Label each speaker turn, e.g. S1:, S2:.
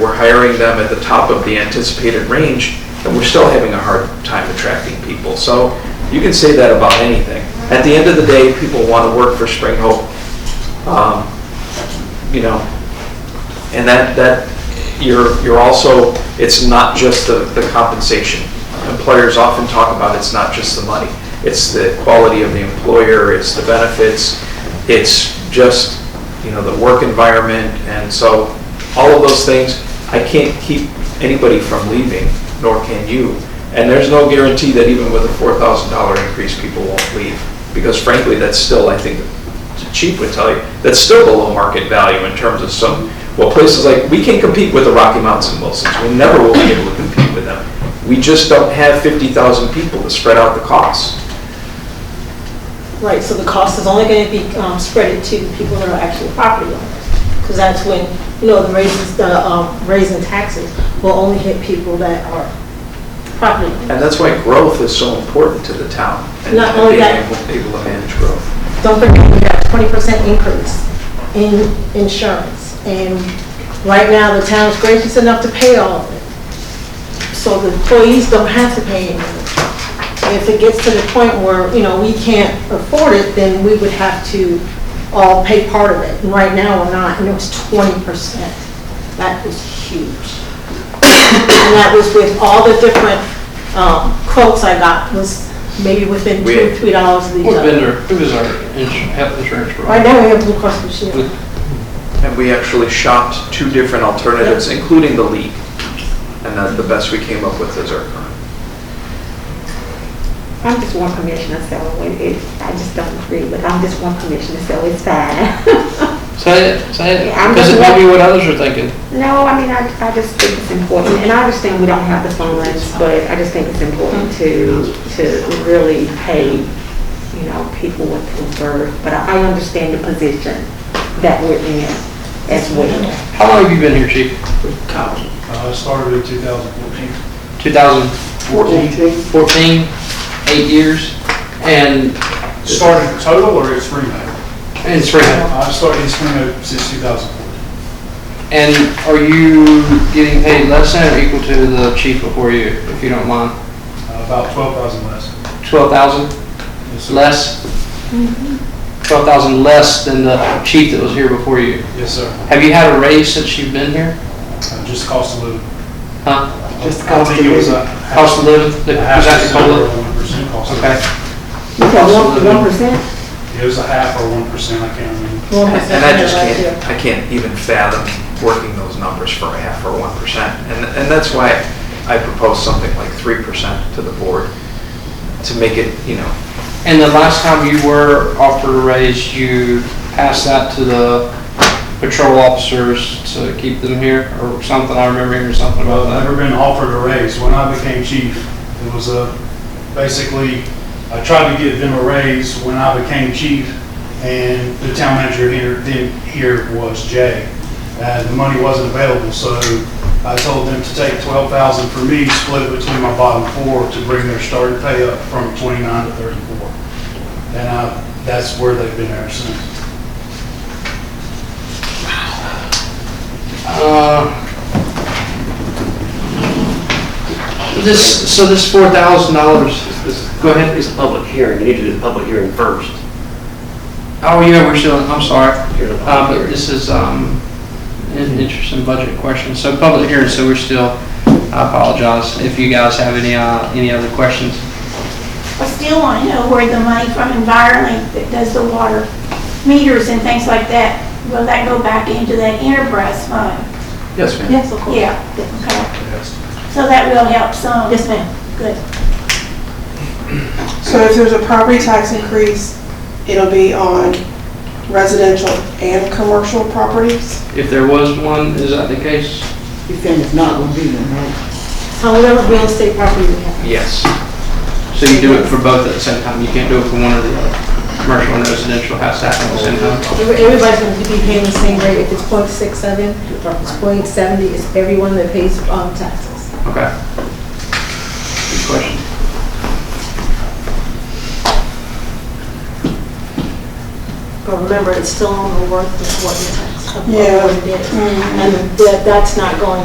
S1: we're hiring them at the top of the anticipated range, and we're still having a hard time attracting people. So you can say that about anything. At the end of the day, people want to work for Spring Hope, um, you know, and that, that, you're, you're also, it's not just the, the compensation. Employers often talk about it's not just the money. It's the quality of the employer, it's the benefits, it's just, you know, the work environment. And so all of those things, I can't keep anybody from leaving, nor can you. And there's no guarantee that even with a $4,000 increase, people won't leave. Because frankly, that's still, I think, Chief would tell you, that's still below market value in terms of some, well, places like, we can compete with the Rocky Mountains and Wilsons, we never will be able to compete with them. We just don't have 50,000 people to spread out the costs.
S2: Right, so the cost is only going to be um, spread to the people that are actually property owners. Because that's when, you know, the raises, the um, raising taxes will only hit people that are property owners.
S1: And that's why growth is so important to the town. and-
S2: Not only
S1: and
S2: that-
S1: Being able able to manage growth.
S2: Don't forget, we got twenty percent increase in insurance. And right now, the town's gracious enough to pay all of it. So the employees don't have to pay anything. If it gets to the point where, you know, we can't afford it, then we would have to all pay part of it. And right now, we're not, and it was twenty percent. That was huge. And that was with all the different um, quotes I got, was maybe within
S1: We-
S2: two, three dollars of each
S3: Who's
S2: other.
S3: been there, who is our insu- health insurance
S2: Right
S3: provider?
S2: now, we have Blue Cross Blue Shield.
S1: And we actually shopped two different alternatives, including the league. And that's the best we came up with is our current.
S4: I'm just one commissioner, so it- it, I just don't agree, but I'm just one commissioner, so it's fine.
S3: Say it, say it,
S4: Yeah, I'm
S3: because it
S4: just
S3: might be what others are thinking.
S4: No, I mean, I, I just think it's important, and I understand we don't have the funds, but I just think it's important to, to really pay, you know, people what they deserve, but I I understand the position that we're in as well.
S3: How long have you been here, chief?
S5: Uh, I started in 2014.
S3: 2014? 14, eight years, and,
S5: Started total or it's remade?
S3: and Springfield.
S5: I've started in Springfield since 2014.
S3: And are you getting paid less than or equal to the chief before you, if you don't mind?
S5: Uh, About 12,000 less.
S3: 12,000
S5: Yes, sir.
S3: less? 12,000 less than the chief that was here before you.
S5: Yes, sir.
S3: Have you had a raise since you've been here?
S5: Uh, Just cost of living.
S3: Huh?
S4: Just
S5: I
S4: cost
S5: think
S4: of
S5: it was
S4: living.
S5: a half-
S3: Cost of living? Was
S5: Uh, a half
S3: that the
S5: percent or 1%
S3: COLA?
S5: cost of
S3: Okay.
S5: living.
S4: You said one, one percent?
S5: It was a half or 1%, I can't remember.
S1: And I just can't, I can't even fathom working those numbers for a half or one percent. And, and that's why I propose something like three percent to the board, to make it, you know,
S3: And the last time you were offered a raise, you passed that to the patrol officers to keep them here or something? I remember hearing something about
S5: Well, I've
S3: that.
S5: never been offered a raise. When I became chief, it was a, basically, I tried to give them a raise when I became chief, and the town manager here, then here was Jay. And the money wasn't available, so I told them to take twelve thousand for me, split it between my bottom four to bring their starting pay up from twenty-nine to thirty-four. And I, that's where they've been ever since.
S3: Uh, This, so this four thousand dollars, go ahead.
S6: It's a public hearing, you need to do the public hearing first.
S3: Oh, yeah, we're still, I'm sorry.
S6: Hear the public
S3: Uh, but
S6: hearing.
S3: this is, um, an interesting budget question. So public hearing, so we're still, I apologize if you guys have any, uh, any other questions.
S7: I still want to know where the money from EnviroLink that does the water meters and things like that, will that go back into that enterprise fund?
S1: yes, ma'am.
S2: Yes, of course.
S7: Yeah, okay. So that will help some.
S2: Yes, ma'am.
S7: Good.
S8: So if there's a property tax increase, it'll be on residential and commercial properties?
S3: If there was one, is that the case?
S9: You're saying it's not gonna be one, right?
S2: So whatever real estate property we have.
S1: Yes.
S3: So you do it for both at the same time? You can't do it for one or the other? Commercial and residential has to happen at the same time?
S2: Every- Everybody's going to be paying the same rate. If it's .67, it's .70, it's everyone that pays um, taxes.
S3: Okay. Good question.
S2: But remember, it's still on the worth of what you tax, of what
S8: Yeah.
S2: it is. And that- that's not going